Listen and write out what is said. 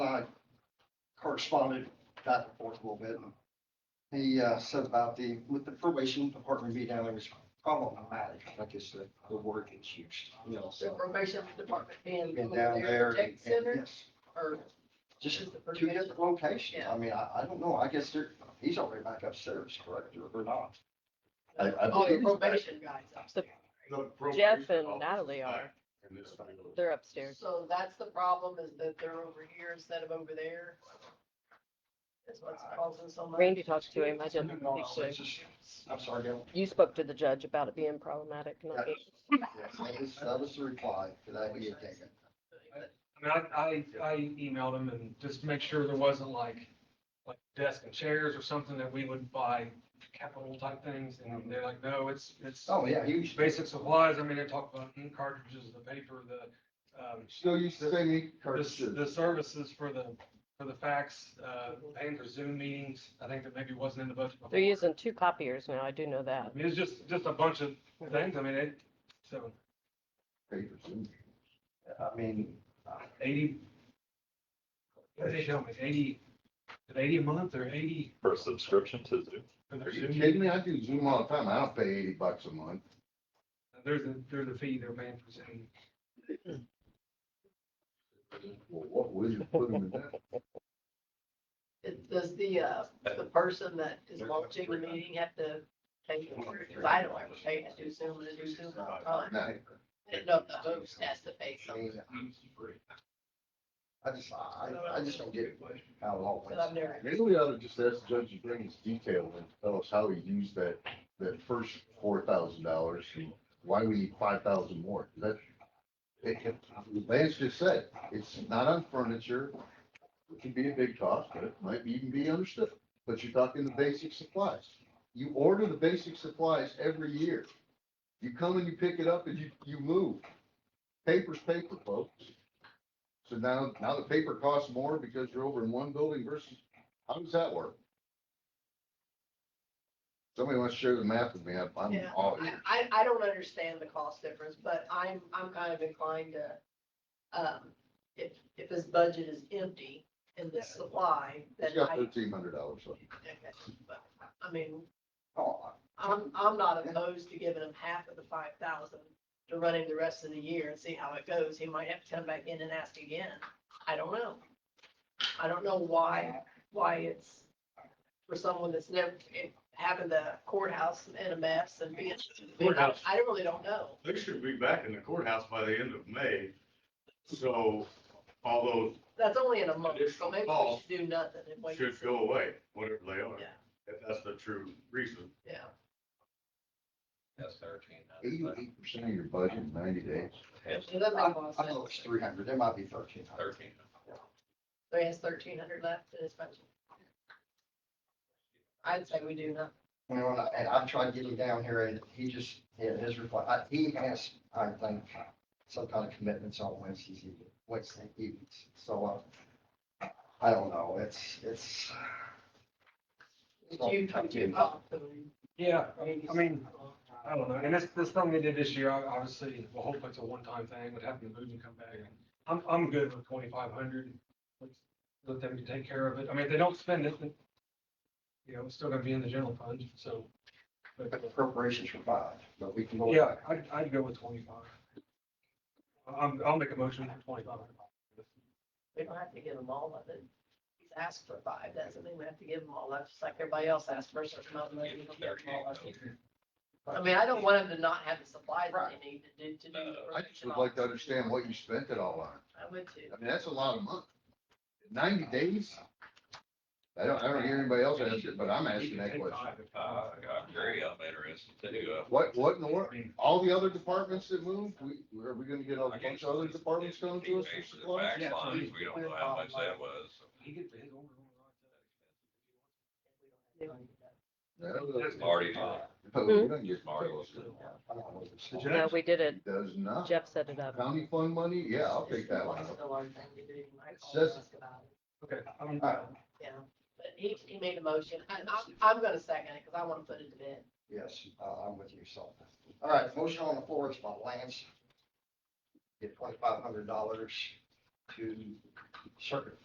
corresponded back and forth a little bit. He uh, said about the, with the probation department being down there was problematic, I guess the, the word is used, you know, The so. probation department being. Been down there. Tech and- and- center yes, or Just Is the two probation- different locations. Yeah. I mean, I, I don't know. I guess they're, he's already back upstairs, correct, or- or not? I- I Oh, the believe- probation guys upstairs. Jeff and Natalie are, they're upstairs. So that's the problem is that they're over here instead of over there. That's what's causing so much. Randy talked to him, No, I just, no, it's actually, just- I'm sorry, Dale. you spoke to the judge about it being problematic, not me. That was, that was the reply to that he had taken. I mean, I, I, I emailed him and just to make sure there wasn't like, like desk and chairs or something that we would buy capital type things. And they're like, no, it's, it's Oh, yeah, he was just basic supplies. I mean, they talk about ink cartridges, the paper, the, um, Still used to saying the, the services for the, for the fax, uh, paying for Zoom meetings. I think that maybe wasn't in the budget. before. They're using two copiers now, I do know that. I mean, it's just, just a bunch of things. I mean, it, so I mean, eighty. What did they tell me? Eighty, is it eighty a month or eighty? For a subscription to Zoom? for their Are you Zoom? kidding me? I do Zoom all the time. I don't pay eighty bucks a month. There's a, there's a fee they're paying for Zoom. Well, what will you put them in that? It- Does the, uh, the person that is watching the meeting have to pay for it? Cause I don't ever pay. I do Zoom and I do Zoom all the time. Now, I didn't know if the host has to pay I something, mean, I just, I, I just don't get how it all but I've went. never. Maybe we ought to just ask the judge to bring us detail and tell us how he used that, that first four thousand dollars and why we need five thousand more. That's, it, it- Lance just said, it's not on furniture. It can be a big cost, but it might even be understood. But you're talking the basic supplies. You order the basic supplies every year. You come and you pick it up and you, you move. Paper's paper, folks. So now, now the paper costs more because you're over in one building versus, how does that work? Somebody wants to share the math with me, I'm, I'm Yeah, all I, ears. I, I don't understand the cost difference, but I'm, I'm kind of inclined to, um, if, if his budget is empty in the supply, then He's got I, thirteen hundred dollars left. I mean, Oh, I'm, I'm not opposed to giving him half of the five thousand to run him the rest of the year and see how it goes. He might have to come back in and ask again. I don't know. I don't know why, why it's for someone that's never, it happened to courthouse in a mess and being, Courthouse. I really don't know. They should be back in the courthouse by the end of May. So although That's only in a month, so Additional maybe we call should do nothing and wait. should go away, whatever they are, Yeah. if that's the true reason. Yeah, That's thirteen. Eighty-eight percent of your budget in ninety days. it doesn't I, make a lot of I know sense. it's three hundred, it might be thirteen hundred. Thirteen. So he has thirteen hundred left in his budget. I'd say we do not. You know, and I- and I've tried getting down here and he just, yeah, his reply, I- he has, I think, some kind of commitments on Wednesdays, evening- Wednesday evenings. So, uh, I don't know, it's, it's. it's all You tough come to to. get- oh, Yeah, maybe I mean, so. I don't know. And that's, that's something they did this year. I- Obviously, well, hopefully it's a one-time thing, would happen to move and come back. I'm, I'm good with twenty-five hundred. Let them take care of it. I mean, if they don't spend it, then, you know, it's still gonna be in the general fund, so. But But, the preparations for five, but we can go. yeah, I'd, I'd go with twenty-five. I'm, I'll make a motion for twenty-five hundred. We don't have to give him all of it. He's asked for five, doesn't mean we have to give him all of it, just like everybody else asked for a certain amount of money. we don't give them all of it. I mean, I don't want him to not have the supplies that they need to do, to do. the Uh, I just would like to understand what you spent it all on. I would too. I mean, that's a lot of money. Ninety days? I don't, I don't hear anybody else answer, it, but I'm asking that question. Uh, I agree, I'm interested too. Uh, What, what in the world? All the other departments that moved, we, are we gonna get a I bunch guess of other departments coming to us for it's the supplies? Back lines, we don't know how much that was. He gets his own. Already, No, we don't get Marty. those. I don't know. It's- Did you- No, we did it, Does not. Jeff set it up. County fund money? Yeah, I'll It's take that one. still our thing to do. I It's called and just- asked about it, Okay, um, I'm, Uh, Yeah, but he, he made a motion. I, I'm, I'm gonna second it because I want to put it to bed. Yes, uh, I'm with you, so. All right, motion on the floor is by Lance. Get twenty-five hundred dollars to circuit